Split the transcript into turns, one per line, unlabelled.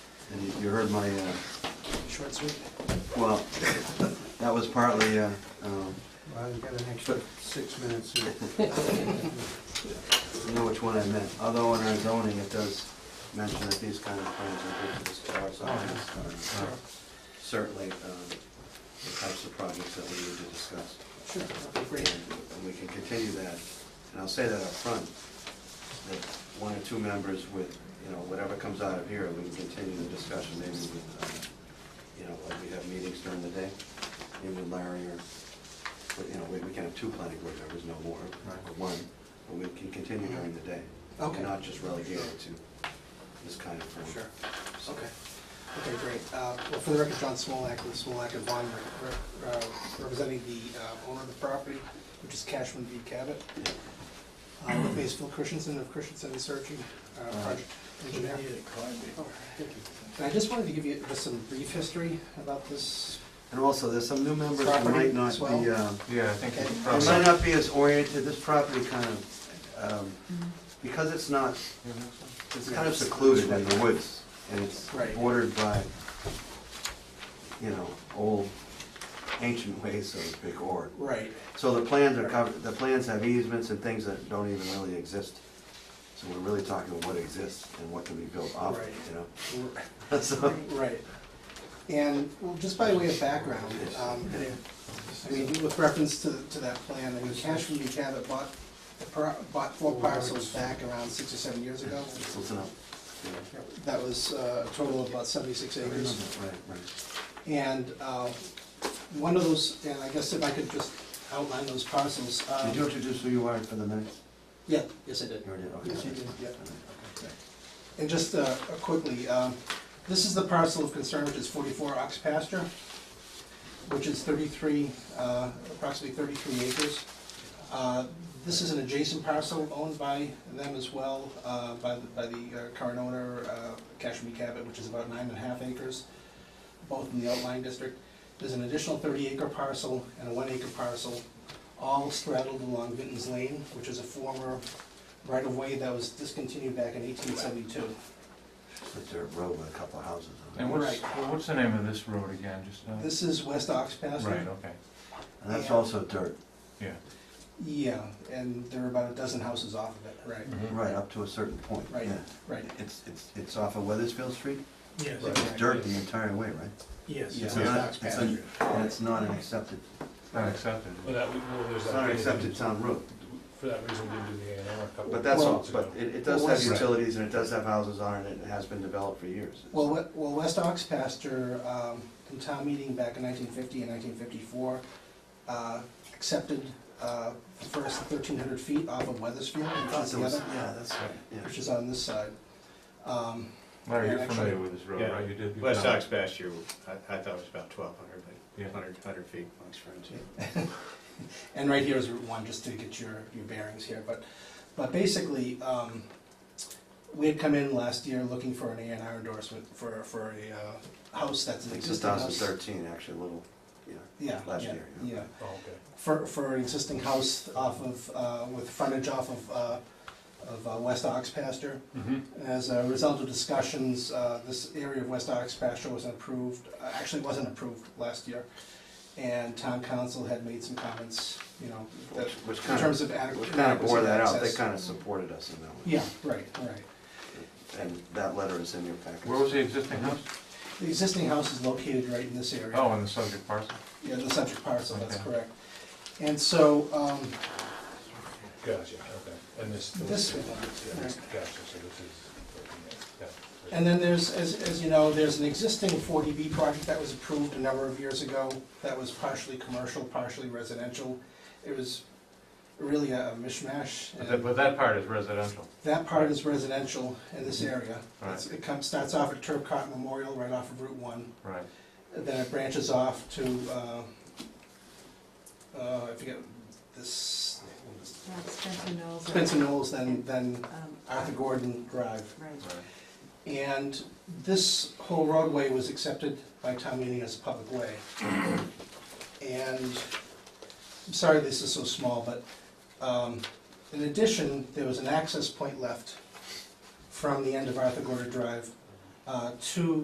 And you- you heard my, uh,
Short sweep.
well, that was partly, uh, um,
Well, you've got an extra six minutes here.
you know which one I meant. Although in our zoning, it does mention that these kind of plans are good for the stars.
Sure.
Certainly, um, the types of projects that we need to discuss.
Sure, that'd be great.
And we can continue that, and I'll say that up front, that one or two members with, you know, whatever comes out of here, we can continue the discussion, maybe with, uh, you know, like we have meetings during the day, maybe with Larry or, but, you know, we we can have two planning board members, no more, or one, but we can continue during the day.
Okay.
And Not just relegate it to this kind of thing.
Sure, okay. Okay, great. Uh, Well, for the record, John Smolak with Smolak and Vaughn, re- re- uh, representing the uh, owner of the property, which is Cashman v. Cabot. Uh, With me is Phil Christensen of Christensen Research, uh, project engineer. Oh, thank you. And I just wanted to give you just some brief history about this.
And also, there's some new members who
Property
might not
as well.
be, uh,
Yeah, I think
Okay.
it's
It
probably.
might not be as oriented, this property kind of, um,
Mm-hmm.
because it's not, it's kind of secluded in the woods, and it's
Right.
bordered by, you know, old ancient ways, so to speak, or.
Right.
So the plans are covered, the plans have easements and things that don't even really exist. So we're really talking what exists and what can be built off,
Right.
you know?
We're-
So,
Right. And, well, just by way of background, um, I mean, with reference to, to that plan, I mean, Cashman v. Cabot bought, the pro- bought four parcels back around six or seven years ago.
listen up. you know?
That was uh, a total of about seventy-six acres.
Right, right.
And, uh, one of those, and I guess if I could just outline those parcels,
Did you
um,
introduce who you are for the minutes?
yeah, yes, I did.
You already did, okay.
Yes, you did, yeah.
Okay.
And just uh, quickly, um, this is the parcel of concern, which is 44 ox pasture, which is 33, uh, approximately 33 acres. Uh, This is an adjacent parcel owned by them as well, uh, by the- by the uh, current owner, uh, Cashmere Cabot, which is about nine and a half acres, both in the outlying district. There's an additional 30 acre parcel and a one acre parcel, all straddled along Vinton's Lane, which is a former right-of-way that was discontinued back in 1872.
It's a dirt road with a couple of houses on
And
it.
what's,
Right.
well, what's the name of this road again, just, uh?
This is West Ox Pasture.
Right, okay,
And that's also dirt,
yeah.
Yeah, and there are about a dozen houses off of it, right,
right, up to a certain point,
Right.
yeah.
right.
It's, it's, it's off of Weathersfield Street?
Yes.
Right.
It's dirt the entire way, right?
Yes.
Yeah.
It's
West
not-
Ox
it's
Pasture.
an- And it's not an accepted,
It's Not accepted.
Well, that, we- well, there's
it's not an
that.
accepted town road,
For that reason, we didn't do the A and R a couple.
but that's
Well-
all, but it, it does
Well,
have
West-
utilities and it does have houses on it, and it has been developed for years. It's-
Well, we- well, West Ox Pasture, um, in town meeting back in 1950 and 1954, uh, accepted uh, the first 1,300 feet off of Weathersfield
I
and
thought
put
there was-
together,
Yeah, that's right,
which
yeah.
is on this side. Um,
Larry,
Yeah,
you're familiar
actually-
with this road,
Yeah.
right? You did. you
West
found-
Sox pasture, I, I thought it was about twelve hundred,
Yeah.
but hundred, hundred feet amongst friends.
And right here is Route One, just to get your, your bearings here, but, but basically, um, we had come in last year looking for an A and R endorsement for, for a, uh, house that's
I
an
think
existing house.
2013, actually, a little, yeah.
Yeah,
last
yeah,
year, yeah.
yeah,
Oh, okay.
for, for an existing house off of, uh, with frontage off of, uh, of, uh, West Ox pasture.
Mm-hmm.
Mhm.
As a result of discussions, uh, this area of West Ox pasture wasn't approved, uh, actually wasn't approved last year. And town council had made some comments, you know, that,
Which- Which
in
kind
terms
of,
of adequate.
which kind of bore that out, they
access.
kind of supported us in that one.
Yeah, right, right.
And that letter is in your package.
Where was the existing house?
The existing house is located right in this area.
Oh, in the subject parcel.
Yeah, the subject parcel, that's
Okay.
correct. And so, um,
Gotcha, okay. And this.
This
yeah,
one.
this- Gotcha, so this is. yeah, yeah.
and then there's, as, as you know, there's an existing 40B project that was approved a number of years ago that was partially commercial, partially residential. It was really a mishmash.
But
and-
that, but that part is residential.
That part is residential in this area.
Right.
It's- It comes, starts off at Turcot Memorial, right off of Route One.
Right.
Then it branches off to, uh, uh, I forget, this,
Not Spencer Knowles. or,
Spencer Knowles, then, then
um,
Arthur Gordon Drive.
Right.
Right.
And this whole roadway was accepted by town meeting as a public way. And, I'm sorry this is so small, but, um, in addition, there was an access point left from the end of Arthur Gordon Drive, uh, to